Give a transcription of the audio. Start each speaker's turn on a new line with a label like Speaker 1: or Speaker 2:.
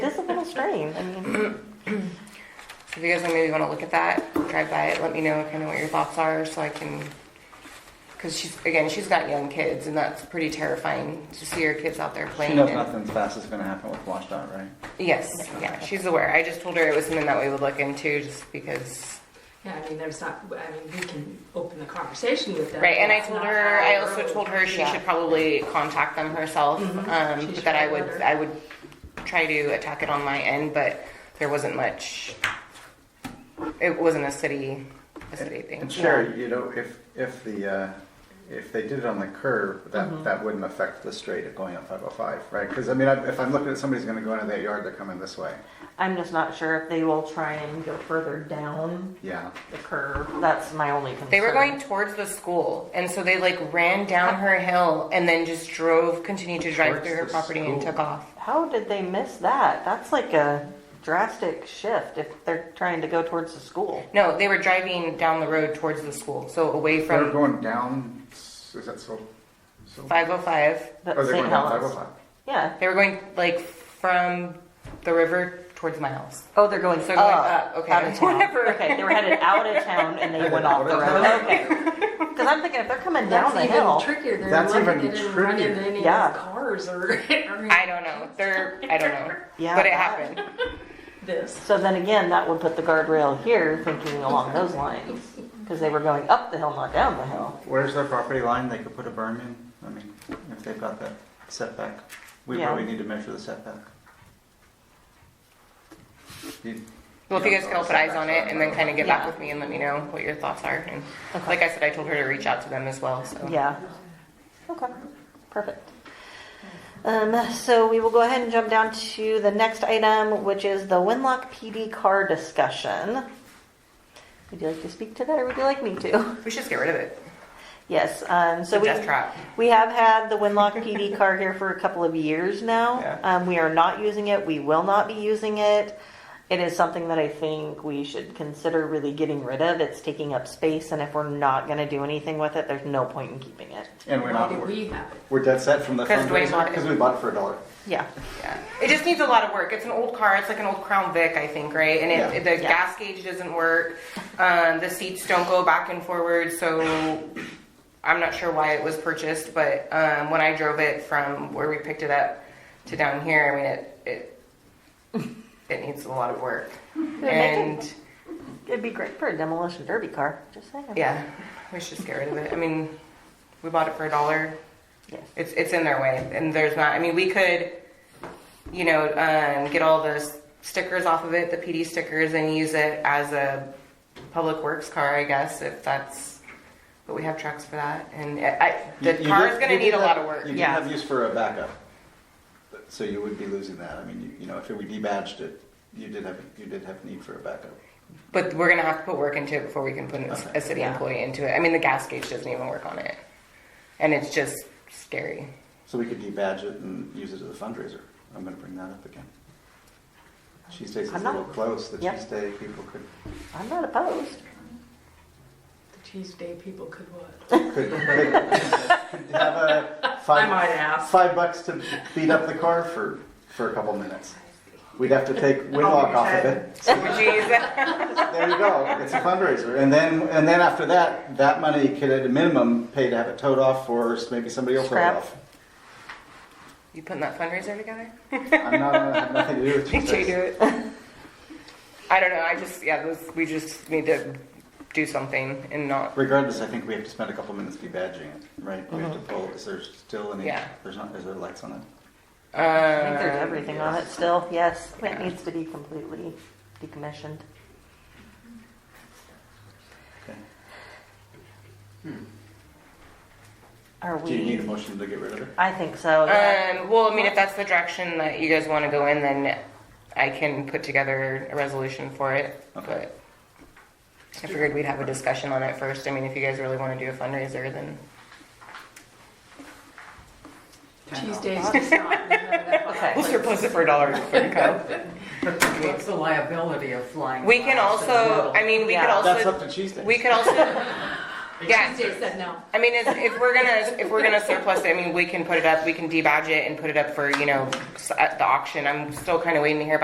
Speaker 1: of strange. I mean,
Speaker 2: So if you guys maybe want to look at that, drive by it, let me know kind of what your thoughts are so I can. Because she's, again, she's got young kids and that's pretty terrifying to see your kids out there playing.
Speaker 3: She knows
Speaker 2: and-
Speaker 3: nothing's fast is gonna happen with Watchdog, right?
Speaker 2: Yes, yeah, she's aware. I just told her it was something that we would look into just because.
Speaker 4: Yeah, I mean, there's not, I mean, we can open the conversation with them.
Speaker 2: Right, and I
Speaker 4: It's
Speaker 2: told
Speaker 4: not
Speaker 2: her, I
Speaker 4: our
Speaker 2: also
Speaker 4: road.
Speaker 2: told her she
Speaker 1: Yeah.
Speaker 2: should probably contact them herself,
Speaker 1: Mm-hmm.
Speaker 2: um,
Speaker 4: She
Speaker 2: but that I
Speaker 4: should
Speaker 2: would,
Speaker 4: letter.
Speaker 2: I would try to attack it on my end, but there wasn't much. It wasn't a city, a city thing.
Speaker 3: And Sherry, you know, if, if the, uh, if they did it on the curb,
Speaker 1: Mm-hmm.
Speaker 3: that, that wouldn't affect the straight of going up five oh five, right? Cause I mean, I- if I'm looking at somebody's gonna go into that yard, they're coming this way.
Speaker 1: I'm just not sure if they will try and go further down
Speaker 3: Yeah.
Speaker 1: the curve. That's my only concern.
Speaker 2: They were going towards the school, and so they like ran down her hill and then just drove, continued to drive
Speaker 3: Towards
Speaker 2: through her
Speaker 3: the
Speaker 2: property and
Speaker 3: school.
Speaker 2: took off.
Speaker 1: How did they miss that? That's like a drastic shift if they're trying to go towards the school.
Speaker 2: No, they were driving down the road towards the school, so away
Speaker 3: They're
Speaker 2: from
Speaker 3: going down, is that so? so-
Speaker 2: five oh five.
Speaker 1: But
Speaker 3: Oh, they're
Speaker 1: St.
Speaker 3: going down five
Speaker 1: Helens.
Speaker 3: oh five?
Speaker 1: Yeah.
Speaker 2: They were going like from the river towards my house.
Speaker 1: Oh, they're going,
Speaker 2: So they're
Speaker 1: up,
Speaker 2: going up, okay.
Speaker 1: out of town.
Speaker 2: Whatever.
Speaker 1: Okay, they were headed out of town and they went off the road. Okay. Because I'm thinking if they're coming down
Speaker 4: That's
Speaker 1: the
Speaker 4: even
Speaker 1: hill,
Speaker 4: trickier. They're
Speaker 3: That's
Speaker 4: lucky
Speaker 3: even
Speaker 4: they didn't run
Speaker 3: trickier.
Speaker 4: into any
Speaker 1: Yeah.
Speaker 4: of his cars or, or
Speaker 2: I don't know. They're I don't know.
Speaker 1: Yeah,
Speaker 2: but it
Speaker 1: that-
Speaker 2: happened.
Speaker 4: this.
Speaker 1: so then again, that would put the guardrail here, thinking along those lines, because they were going up the hill, not down the hill.
Speaker 3: Where's their property line? They could put a berm in. I mean, if they've got that setback, we
Speaker 1: Yeah.
Speaker 3: probably need to measure the setback. You-
Speaker 2: Well, if you guys could all put eyes on it and then kind of get
Speaker 1: Yeah.
Speaker 2: back with me and let me know what your thoughts are. And like I said, I told her to reach out to them as well. So
Speaker 1: Yeah. Okay, perfect. Um, so we will go ahead and jump down to the next item, which is the Winlock PD car discussion. Would you like to speak to that, or would you like me to?
Speaker 2: we should just get rid of it.
Speaker 1: Yes, um, so
Speaker 2: It's a
Speaker 1: we,
Speaker 2: death trap.
Speaker 1: we have had the Winlock PD car here for a couple of years now.
Speaker 3: Yeah.
Speaker 1: Um, we are not using it, we will not be using it. It is something that I think we should consider really getting rid of. It's taking up space, and if we're not gonna do anything with it, there's no point in keeping it.
Speaker 3: And we're
Speaker 4: Why
Speaker 3: not,
Speaker 4: did
Speaker 3: we're,
Speaker 4: we have it?
Speaker 3: we're dead set from the
Speaker 2: 'Cause Dwayne bought
Speaker 3: fundraiser
Speaker 2: it.
Speaker 3: because we bought it for a dollar.
Speaker 1: Yeah.
Speaker 2: Yeah. It just needs a lot of work. It's an old car. It's like an old Crown Vic, I think, right? And it,
Speaker 3: Yeah.
Speaker 2: the
Speaker 1: Yeah.
Speaker 2: gas gauge doesn't work. Um, the seats don't go back and forward. So I'm not sure why it was purchased, but um, when I drove it from where we picked it up to down here, I mean, it it it needs a lot of work. And
Speaker 1: It'd be great for a demolition derby car. Just saying.
Speaker 2: yeah, we should just get rid of it. I mean, we bought it for a dollar.
Speaker 1: Yes.
Speaker 2: it's it's in their way and there's not i mean we could you know um, get all the s- stickers off of it the pd stickers and use it as a public works car i guess if that's but we have trucks for that and uh, i, I the
Speaker 3: You- you
Speaker 2: car
Speaker 3: did-
Speaker 2: is going to
Speaker 3: you did
Speaker 2: need a
Speaker 3: have-
Speaker 2: lot of work
Speaker 3: You did
Speaker 1: Yeah.
Speaker 3: have use for a backup, But- so you would be losing that. I mean, you, you know, if we debadged it, you did have, you did have need for a backup.
Speaker 2: but we're going to have to put work into it before we can put an-
Speaker 3: Okay.
Speaker 2: a city employee into it i mean the gas gauge doesn't even work on it and it's just scary
Speaker 3: So we could debadge it and use it as a fundraiser. I'm gonna bring that up again. Cheese Days is a
Speaker 1: I'm not-
Speaker 3: little close. The
Speaker 1: Yep.
Speaker 3: Cheese Day people could
Speaker 1: I'm not opposed.
Speaker 4: The Tuesday people could what?
Speaker 3: could, could have a
Speaker 4: I
Speaker 3: five,
Speaker 4: might ask.
Speaker 3: five bucks to beat up the car for, for a couple minutes. We'd have to take Winlock off of it. So
Speaker 2: would you use that
Speaker 3: there you go. It's a fundraiser, and then and then after that, that money could at a minimum pay to have it towed off, or maybe somebody else
Speaker 1: Scrap.
Speaker 3: towed off.
Speaker 2: you putting that fundraiser together
Speaker 3: I'm not I have nothing to do with
Speaker 2: Did you do
Speaker 3: Tuesdays.
Speaker 2: it? I don't know. I just yeah, those, we just need to do something and not.
Speaker 3: Regardless, I think we have to spend a couple minutes debadging it, right? We have to pull. Is there still any?
Speaker 2: Yeah.
Speaker 3: There's not. Is there lights on it?
Speaker 1: I think
Speaker 3: Uh,
Speaker 1: there's
Speaker 2: Um,
Speaker 1: everything on it still. Yes,
Speaker 2: Yeah.
Speaker 1: it needs to be completely decommissioned.
Speaker 3: Okay.
Speaker 1: Are
Speaker 3: Do you need Uh, a
Speaker 1: we?
Speaker 3: motion to get rid of it?
Speaker 1: I think so. yeah.
Speaker 2: um, well, I mean, if that's the direction that you guys want to go in, then I can put together a resolution for it.
Speaker 3: Okay.
Speaker 2: But I figured we'd have a discussion on it first. I mean, if you guys really want to do a fundraiser, then
Speaker 4: Tuesdays is not.
Speaker 1: Okay.
Speaker 2: we'll surplus it for a dollar before you come.
Speaker 5: What's the liability of flying?
Speaker 2: We can
Speaker 5: glass in the
Speaker 2: also.
Speaker 5: middle?
Speaker 2: I mean, we
Speaker 1: Yeah.
Speaker 2: could
Speaker 3: That's up
Speaker 2: also.
Speaker 3: to Tuesdays.
Speaker 2: We could also. Yeah.
Speaker 4: Tuesday said no.
Speaker 2: I mean, if, if we're gonna if we're gonna surplus it, I mean, we can put it up, we can debadge it and put it up for you know s- at the auction. I'm still kind of waiting to hear back